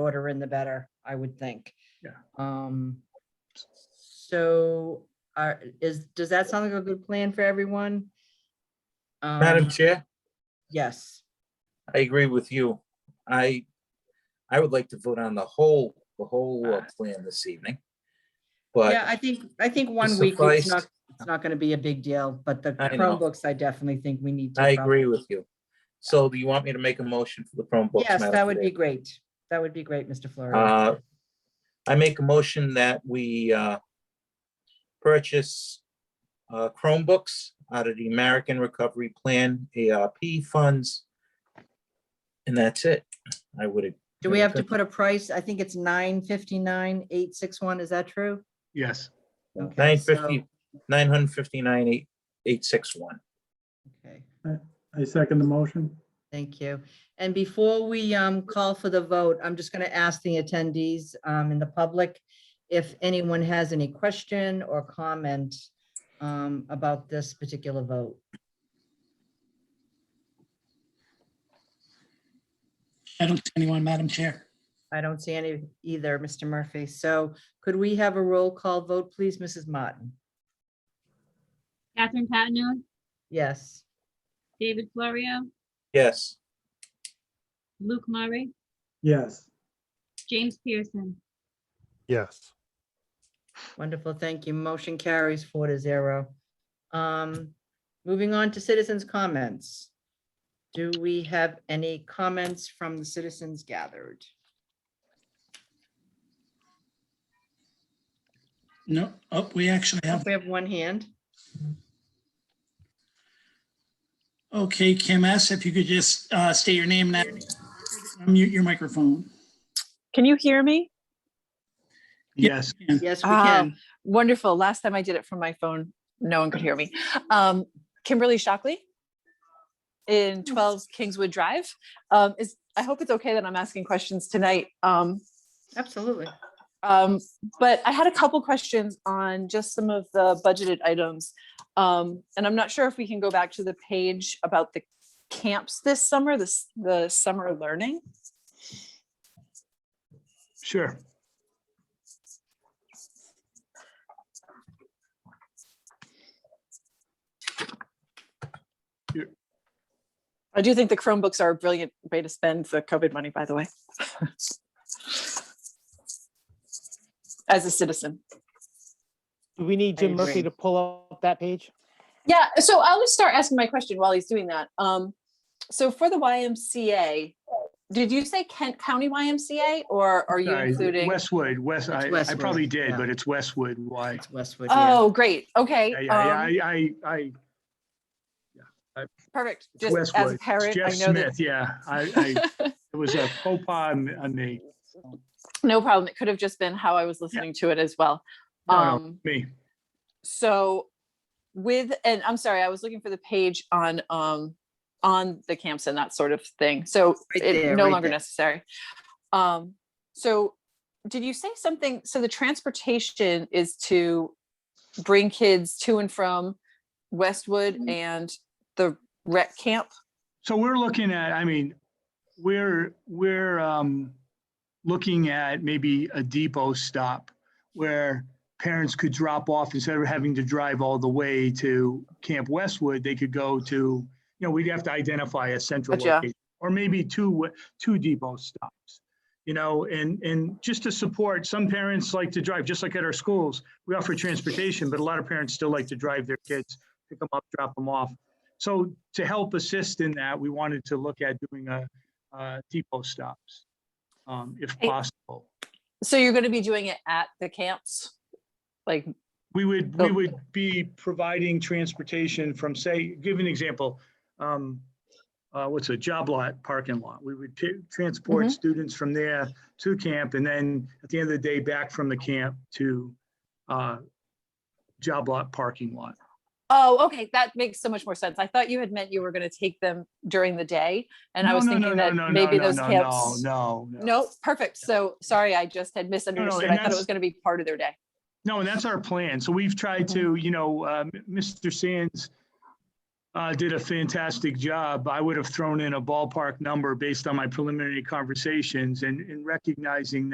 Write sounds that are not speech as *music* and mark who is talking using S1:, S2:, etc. S1: shorter in the better, I would think.
S2: Yeah.
S1: Um, so are, is, does that sound like a good plan for everyone?
S2: Madam
S1: Um,
S2: Chair,
S1: Yes,
S2: I agree with you. I, I would like to vote on the whole, the whole uh, plan this evening.
S1: yeah,
S2: But
S1: I think, I think one week it's
S2: sufficed.
S1: not, it's not gonna be a big deal, but the
S2: I know.
S1: Chromebooks, I definitely think we need to.
S2: I agree with you. So do you want me to make a motion for the Chromebooks?
S1: Yes,
S2: Madam
S1: that would
S2: Chair?
S1: be great. That would be great, Mr. Florio.
S2: Uh, I make a motion that we uh, purchase uh, Chromebooks out of the American Recovery Plan ARP funds. And that's it. I would.
S1: Do we have to put a price? I think it's nine fifty-nine, eight six one. Is that true?
S3: Yes,
S1: Okay,
S2: Nine
S1: so-
S2: fifty, nine hundred fifty-nine, eight, eight, six, one.
S1: Okay.
S4: I second the motion.
S1: Thank you. And before we um, call for the vote, I'm just going to ask the attendees um, in the public if anyone has any question or comment um, about this particular vote.
S5: I don't see anyone, Madam Chair.
S1: I don't see any either, Mr. Murphy. So could we have a roll call vote, please, Mrs. Martin?
S6: Catherine Patino,
S1: Yes.
S6: David Florio,
S2: Yes,
S6: Luke Murray,
S4: Yes,
S6: James Pearson.
S7: Yes,
S1: Wonderful, thank you. Motion carries four to zero. Um, Moving on to citizens' comments. Do we have any comments from the citizens gathered?
S5: No, oh, we actually
S1: Oh,
S5: have,
S1: We have one hand.
S5: okay, Kim S., if you could just uh, state your name and unmute your microphone.
S8: Can you hear me?
S3: yes,
S5: And
S1: Yes, we
S8: Ah.
S1: can.
S8: Wonderful. Last time I did it from my phone, no one could hear me. Um, Kimberly Shockley in 12 Kingswood Drive. Um, is, I hope it's okay that I'm asking questions tonight. Um,
S1: Absolutely.
S8: um, but I had a couple questions on just some of the budgeted items. Um, and I'm not sure if we can go back to the page about the camps this summer, this, the summer learning.
S3: sure.
S8: I do think the Chromebooks are a brilliant way to spend the COVID money, by the way. As a citizen.
S9: Do we need
S1: I
S9: Jim Murphy
S1: agree.
S9: to pull up that page?
S8: Yeah, so I'll just start asking my question while he's doing that. Um, so for the YMCA, did you say Kent County YMCA or are you
S3: Sorry,
S8: including?
S3: Westwood, West, I, I
S1: Westwood,
S3: probably did,
S1: yeah.
S3: but it's Westwood, why?
S1: It's Westwood. yeah.
S8: Oh, great, okay.
S3: Yeah, yeah,
S8: um,
S3: yeah, I, I, I,
S8: Perfect,
S3: it's
S8: just as
S3: Westwood.
S8: a
S3: It's
S8: parent, I
S3: Jeff
S8: know that.
S3: Smith, yeah, I, I, it was a faux pas on on me,
S8: *laughs* No problem, it could have just been how I was listening to it as well.
S3: No, no.
S8: Um,
S3: me.
S8: so with and i'm sorry i was looking for the page on um on the camps and that sort of thing so
S1: Right
S8: it
S1: there,
S8: no
S1: right
S8: longer
S1: there.
S8: necessary um so did you say something so the transportation is to bring kids to and from westwood
S1: Mm-hmm.
S8: and the rec camp
S3: So we're looking at, I mean, we're, we're um, looking at maybe a depot stop where parents could drop off instead of having to drive all the way to Camp Westwood, they could go to, you know, we'd have to identify a central
S8: Gotcha.
S3: location. Or maybe two, wa- two depot stops, you know, and, and just to support, some parents like to drive, just like at our schools. We offer transportation, but a lot of parents still like to drive their kids, pick them up, drop them off. So to help assist in that, we wanted to look at doing a, uh, depot stops, um, if
S8: Hey.
S3: possible.
S8: so you're going to be doing it at the camps like
S3: We would, we
S8: So-
S3: would be providing transportation from, say, give an example. um, uh, What's a job lot, parking lot? We would ta- transport
S8: Mhm.
S3: students from there to camp and then at the end of the day, back from the camp to uh, job lot, parking lot.
S8: Oh, okay. That makes so much more sense. I thought you had meant you were going to take them during the day. And I
S3: No,
S8: was
S3: no, no,
S8: thinking
S3: no,
S8: that
S3: no, no,
S8: maybe
S3: no,
S8: those
S3: no,
S8: camps.
S3: No, no, no.
S8: No, perfect. So sorry, I just had misunderstood.
S3: and
S8: I thought it
S3: that's-
S8: was going to be part of their day.
S3: No, and that's our plan. So we've tried
S8: Mhm.
S3: to, you know, um, Mr. uh, Sands uh, did a fantastic job. I would have thrown in a ballpark number based on my preliminary conversations and, and recognizing